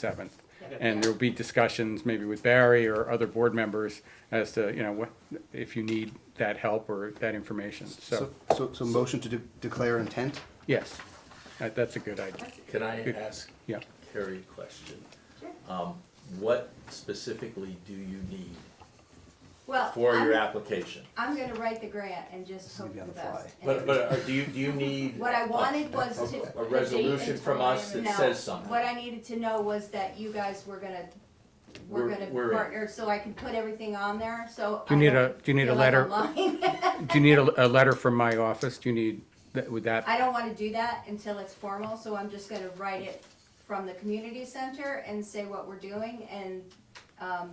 7th. And there'll be discussions maybe with Barry or other board members as to, you know, what, if you need that help or that information. So, So, so, so motion to de- declare intent? yes, that, that's a good idea. Can I ask Yeah. Carrie a question? Um, What specifically do you need Well, for your I'm, application? I'm gonna write the grant and just hope Maybe for on the the fly. best. And But, but are- do you, do you need? What I a- wanted was a- to- A resolution from us that no, says something? What I needed to know was that you guys were gonna, were We're- gonna we're in. partner, so I can put everything on there, so. Do you I need don't a- do you need a feel like letter? I'm lying. Do you need a, a letter from my office? Do you need, that- would that, I don't wanna do that until it's formal, so I'm just gonna write it from the community center and say what we're doing, and, um,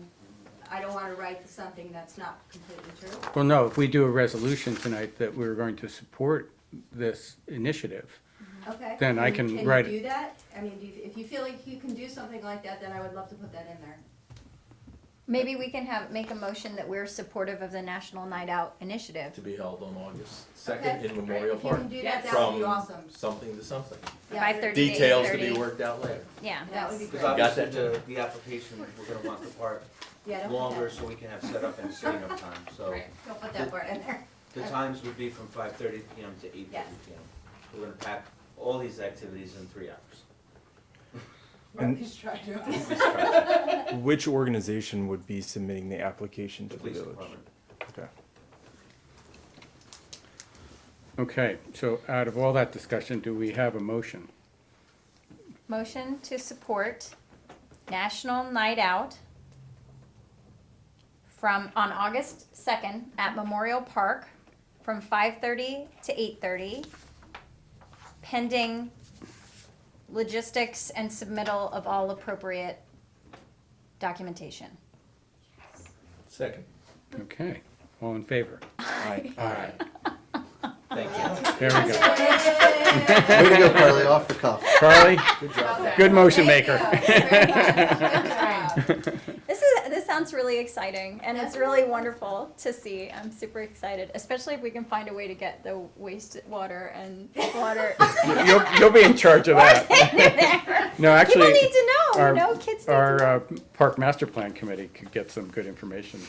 I don't wanna write something that's not completely true. well, no, if we do a resolution tonight that we're going to support this initiative, Okay. Then I can write it. you do that? I mean, do you- if you feel like you can do something like that, then I would love to put that in there. Maybe we can have, make a motion that we're supportive of the National Night Out Initiative. To be held on August second Okay, in Memorial If you Park? can do that, that would be From awesome. something to something. Yeah, Five thirty to Details to 8:30. be worked out later. Yeah. That would be great. Because Got obviously that, the, the application, we're gonna want the part Yeah, don't put longer that- so we can have setup and setting up time, so. Don't put that part in there. The times would be from five thirty PM to eight Yeah. thirty PM. We're gonna pack all these activities in three hours. Please try. Which organization would be submitting the application The to the police village? department. Okay. okay, so out of all that discussion, do we have a motion? Motion to support National Night Out from, on August second at Memorial Park from five thirty to eight thirty. Pending logistics and submittal of all appropriate documentation. Second. Okay, all in favor? Aye. Aye. Thank you. There we go. Way to go, Carly, off the cuff. Carly, Good job. good motion Thank you. maker. Very much. Good job. This is this sounds really exciting, and it's really wonderful to see. I'm super excited, especially if we can find a way to get the wastewater and water. You'll, you'll be in charge of that. No, actually. People need to know. our- no kids need Our to know. uh, Park Master Plan Committee could get some good information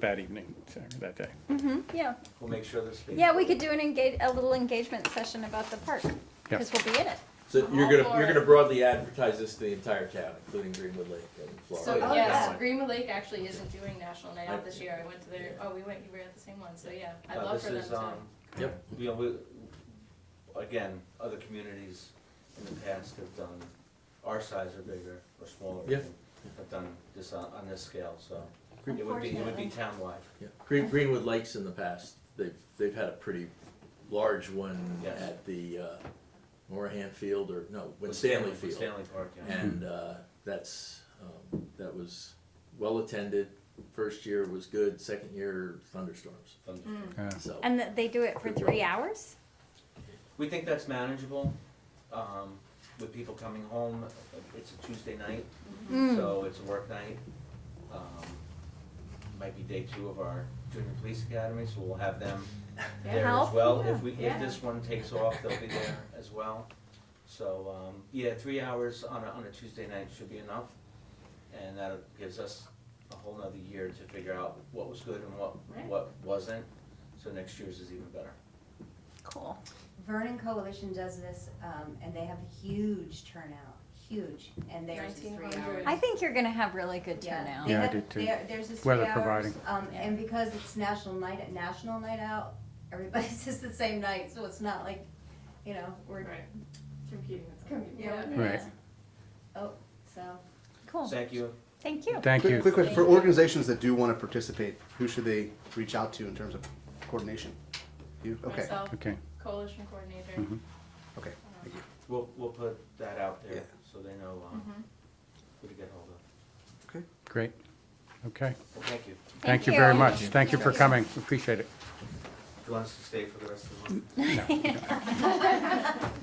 that evening, so, that day. Mm-hmm, yeah, We'll make sure this. being- yeah, we could do an engage a little engagement session about the park Yeah. because we'll be in it. So you're gonna, you're gonna broadly advertise this to the entire town, including Greenwood Lake and So Florida. Oh, yes, yeah. Greenwood Lake actually isn't doing National Night Out this year. I went to their. Oh, we went. You were at the same one. So yeah, I'd Uh, love this for them is, to. um, Yep. You know, we, again, other communities in the past have done, our size are bigger or smaller. Yeah. Have done this on, on this scale, so it would be, it would be townwide. Yeah. Green, Greenwood Lakes in the past, they've, they've had a pretty large one Yes. at the, uh, Morahan Field or, no, when With Stanley with Field. Stanley Park, yeah. And, uh, that's, um, that was well-attended. First year was good, second year thunderstorms, Thunderstorm. so. And th- they do it for three hours. We think that's manageable, um, with people coming home, it's a Tuesday night, Mm-hmm. Mm. Mm. so it's a work night. Um, Might be day two of our junior police academy, so we'll have them there as Help, well. If we, yeah. if this one takes off, they'll be there as well. So, um, yeah, three hours on a, on a Tuesday night should be enough. And that gives us a whole nother year to figure out what was good and what, Right. what wasn't. So next year's is even better. Cool. Vernon Coalition does this, um, and they have a huge turnout, huge, and theirs is three 1900. hours. I think you're gonna have really good Yeah. turnout. They Yeah, I have- did too. there- There's this Weather three hours, providing. um, Yeah. and because it's national night, national night out, everybody says the same night, so it's not like, you know, we're, Right. Competing with Com- yeah. Yeah. Right. oh, so. Cool. Thank you. Thank you. Thank Quick, you. quick question, for organizations that do want to participate, who should they reach out to in terms of coordination? You, okay, Myself, Okay, coalition coordinator. Mhm. Mm-hmm. okay, thank you. We'll, we'll put that out Yeah. there, so they know, Mm-hmm. um, who to get hold of. Okay. great. Okay, Well, thank you. thank you very much. Thank you for coming. Appreciate it. Do you want us to stay for the rest of the month?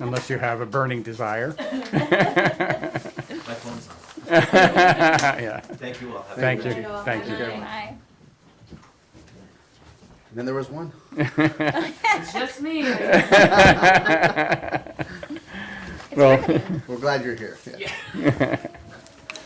Unless you have a burning desire. My phone's on. Yeah, Thank you all. Have a thank good you, night. thank you. Bye. And then there was one. It's just me. Well, We're glad you're here. Yeah.